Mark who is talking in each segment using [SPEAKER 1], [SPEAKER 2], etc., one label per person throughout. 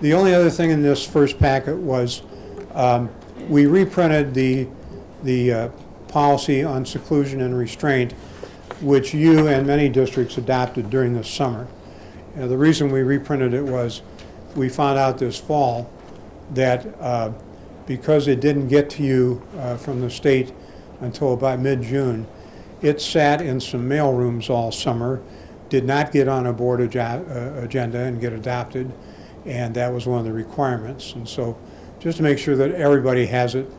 [SPEAKER 1] The only other thing in this first packet was, um, we reprinted the, the uh, policy on seclusion and restraint, which you and many districts adopted during the summer. And the reason we reprinted it was, we found out this fall that uh, because it didn't get to you uh, from the state until about mid-June, it sat in some mailrooms all summer, did not get on a board aja- uh, agenda and get adopted, and that was one of the requirements. And so, just to make sure that everybody has it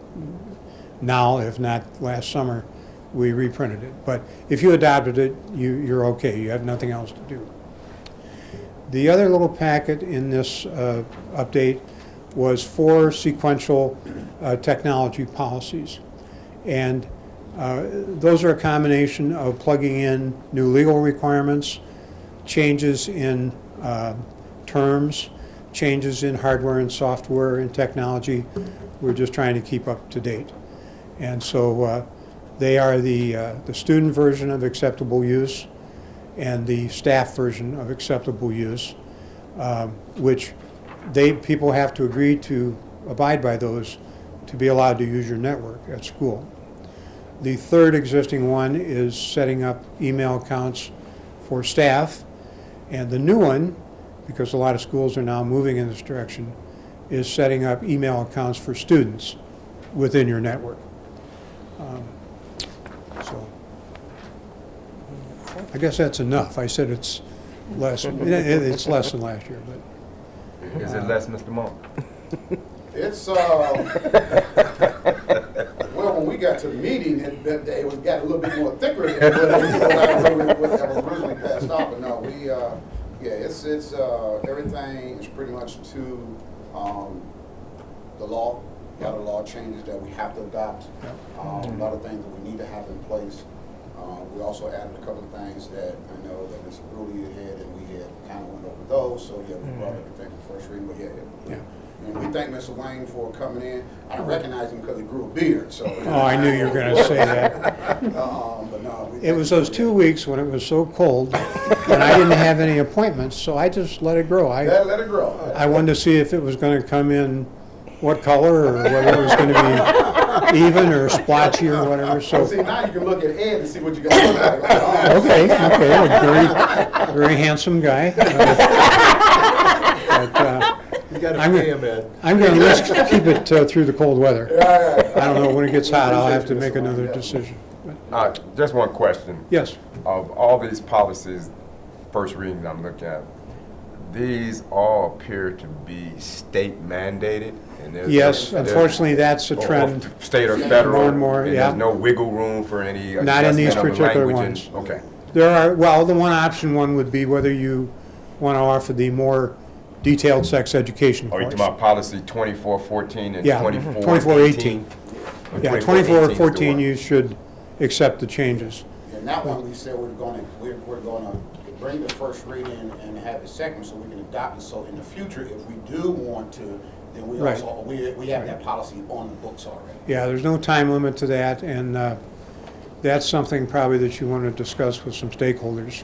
[SPEAKER 1] now, if not last summer, we reprinted it. But if you adopted it, you, you're okay, you have nothing else to do. The other little packet in this uh, update was four sequential uh, technology policies. And uh, those are a combination of plugging in new legal requirements, changes in uh, terms, changes in hardware and software and technology. We're just trying to keep up to date. And so uh, they are the, uh, the student version of acceptable use and the staff version of acceptable use, um, which they, people have to agree to abide by those to be allowed to use your network at school. The third existing one is setting up email accounts for staff. And the new one, because a lot of schools are now moving in this direction, is setting up email accounts for students within your network. Um, So, I guess that's enough. I said it's less, it- it- it's less than last year, but.
[SPEAKER 2] Is it less, Mr. Monk?
[SPEAKER 3] It's, uh, well, when we got to the meeting that, that day, we got a little bit more thicker than what I really- what I was originally passed out, but no, we, uh, yeah, it's, it's, uh, everything is pretty much to, um, the law, a lot of law changes that we have to adopt, um, a lot of things that we need to have in place. Uh, we also added a couple of things that I know that Mr. Brody had, and we had kind of went over those, so yeah, we brought everything to first reading, but yeah, it-
[SPEAKER 1] Mm-hmm. Yeah.
[SPEAKER 3] and we thank Mr. Wayne for coming in. I don't recognize him because he grew a beard, so.
[SPEAKER 1] Oh, I knew you were going to say that.
[SPEAKER 3] Um, but no. we-
[SPEAKER 1] It was those two weeks when it was so cold, and I didn't have any appointments, so I just let it grow. I,
[SPEAKER 3] Let, let it grow.
[SPEAKER 1] I wanted to see if it was going to come in what color, or whether it was going to be even or splotchy or whatever, so.
[SPEAKER 3] See, now you can look at Ed and see what you got. oh,
[SPEAKER 1] Okay, okay, a very, very handsome guy. Uh, but, uh,
[SPEAKER 4] You gotta
[SPEAKER 1] I'm-
[SPEAKER 4] pay him, Ed.
[SPEAKER 1] I'm going to risk, keep it uh, through the cold weather.
[SPEAKER 3] All right.
[SPEAKER 1] I don't know, when it gets hot, I'll have to make
[SPEAKER 3] Appreciate you, Mr.
[SPEAKER 1] another
[SPEAKER 3] Wayne.
[SPEAKER 1] decision.
[SPEAKER 2] Uh, just one question.
[SPEAKER 1] Yes,
[SPEAKER 2] Of all these policies, first reading I'm looking at, these all appear to be state mandated. and there's-
[SPEAKER 1] yes,
[SPEAKER 2] there's-
[SPEAKER 1] unfortunately, that's a
[SPEAKER 2] or- or
[SPEAKER 1] trend.
[SPEAKER 2] State or federal.
[SPEAKER 1] More and more, yeah.
[SPEAKER 2] there's no wiggle room for any.
[SPEAKER 1] Not in these
[SPEAKER 2] adjustment of
[SPEAKER 1] particular
[SPEAKER 2] language and-
[SPEAKER 1] ones.
[SPEAKER 2] Okay.
[SPEAKER 1] There are, well, the one option one would be whether you want to offer the more detailed sex education
[SPEAKER 2] Are you
[SPEAKER 1] course.
[SPEAKER 2] Oh, talking about policy 2414 and
[SPEAKER 1] Yeah,
[SPEAKER 2] 2418?
[SPEAKER 1] 2418. Yeah, 2414, you should accept the changes.
[SPEAKER 3] And that one, we said we're gonna, we're, we're gonna bring the first reading and have a second so we can adopt it. So in the future, if we do want to, then we
[SPEAKER 1] Right.
[SPEAKER 3] also, we, we have that policy on the books already.
[SPEAKER 1] Yeah, there's no time limit to that, and uh, that's something probably that you want to discuss with some stakeholders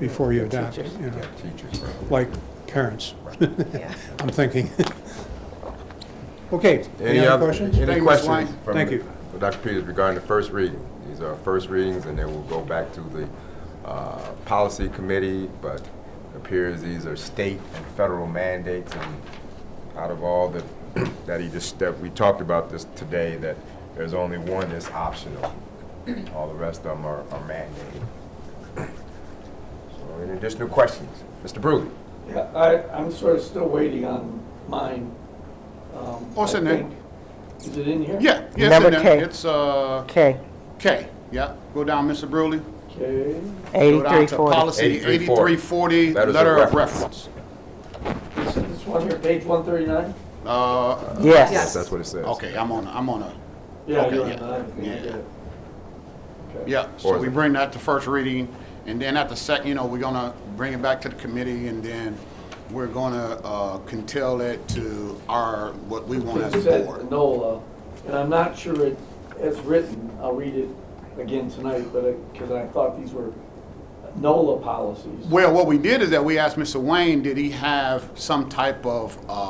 [SPEAKER 1] before you adopt it, you know,
[SPEAKER 2] Teachers.
[SPEAKER 1] like parents,
[SPEAKER 5] Yeah.
[SPEAKER 1] I'm thinking. Okay, any other
[SPEAKER 2] other-
[SPEAKER 1] questions?
[SPEAKER 3] Thank
[SPEAKER 2] Any
[SPEAKER 3] you, Mr. Wayne.
[SPEAKER 2] questions? from
[SPEAKER 1] Thank you.
[SPEAKER 2] Dr. Peters regarding the first reading? These are first readings, and then we'll go back to the uh, policy committee, but appears these are state and federal mandates, and out of all the, that he just, that we talked about this today, that there's only one that's optional. All the rest of them are are mandated. So any additional questions? Mr. Brewley?
[SPEAKER 6] Yeah, I, I'm sort of still waiting on mine. Um,
[SPEAKER 7] Oh, it's
[SPEAKER 6] I
[SPEAKER 7] in there.
[SPEAKER 6] think- Is it in here?
[SPEAKER 7] Yeah, yeah, it's
[SPEAKER 5] Number
[SPEAKER 7] in there.
[SPEAKER 5] K.
[SPEAKER 7] It's, uh,
[SPEAKER 5] Okay,
[SPEAKER 7] K, yeah. Go down, Mr. Brewley. Go
[SPEAKER 6] Okay,
[SPEAKER 7] down to
[SPEAKER 5] 8340.
[SPEAKER 7] policy 8340,
[SPEAKER 2] Letters of
[SPEAKER 7] letter of
[SPEAKER 2] reference.
[SPEAKER 7] reference.
[SPEAKER 6] this, this one here, page one thirty-nine?
[SPEAKER 7] Uh,
[SPEAKER 5] Yes.
[SPEAKER 2] That's what it says.
[SPEAKER 7] okay, I'm on, I'm on a,
[SPEAKER 6] Yeah,
[SPEAKER 7] Okay,
[SPEAKER 6] you're on
[SPEAKER 7] yeah,
[SPEAKER 6] nine, if you
[SPEAKER 7] yeah.
[SPEAKER 6] get it. Okay.
[SPEAKER 7] yeah.
[SPEAKER 2] Or
[SPEAKER 7] So
[SPEAKER 2] is
[SPEAKER 7] we
[SPEAKER 2] it-
[SPEAKER 7] bring that to first reading, and then at the second, you know, we're gonna bring it back to the committee, and then we're gonna, uh, contell it to our, what we want
[SPEAKER 6] It
[SPEAKER 7] as a
[SPEAKER 6] says
[SPEAKER 7] board.
[SPEAKER 6] NOLA, and I'm not sure it, as written, I'll read it again tonight, but, because I thought these were NOLA policies.
[SPEAKER 7] Well, what we did is that we asked Mr. Wayne, did he have some type of, uh,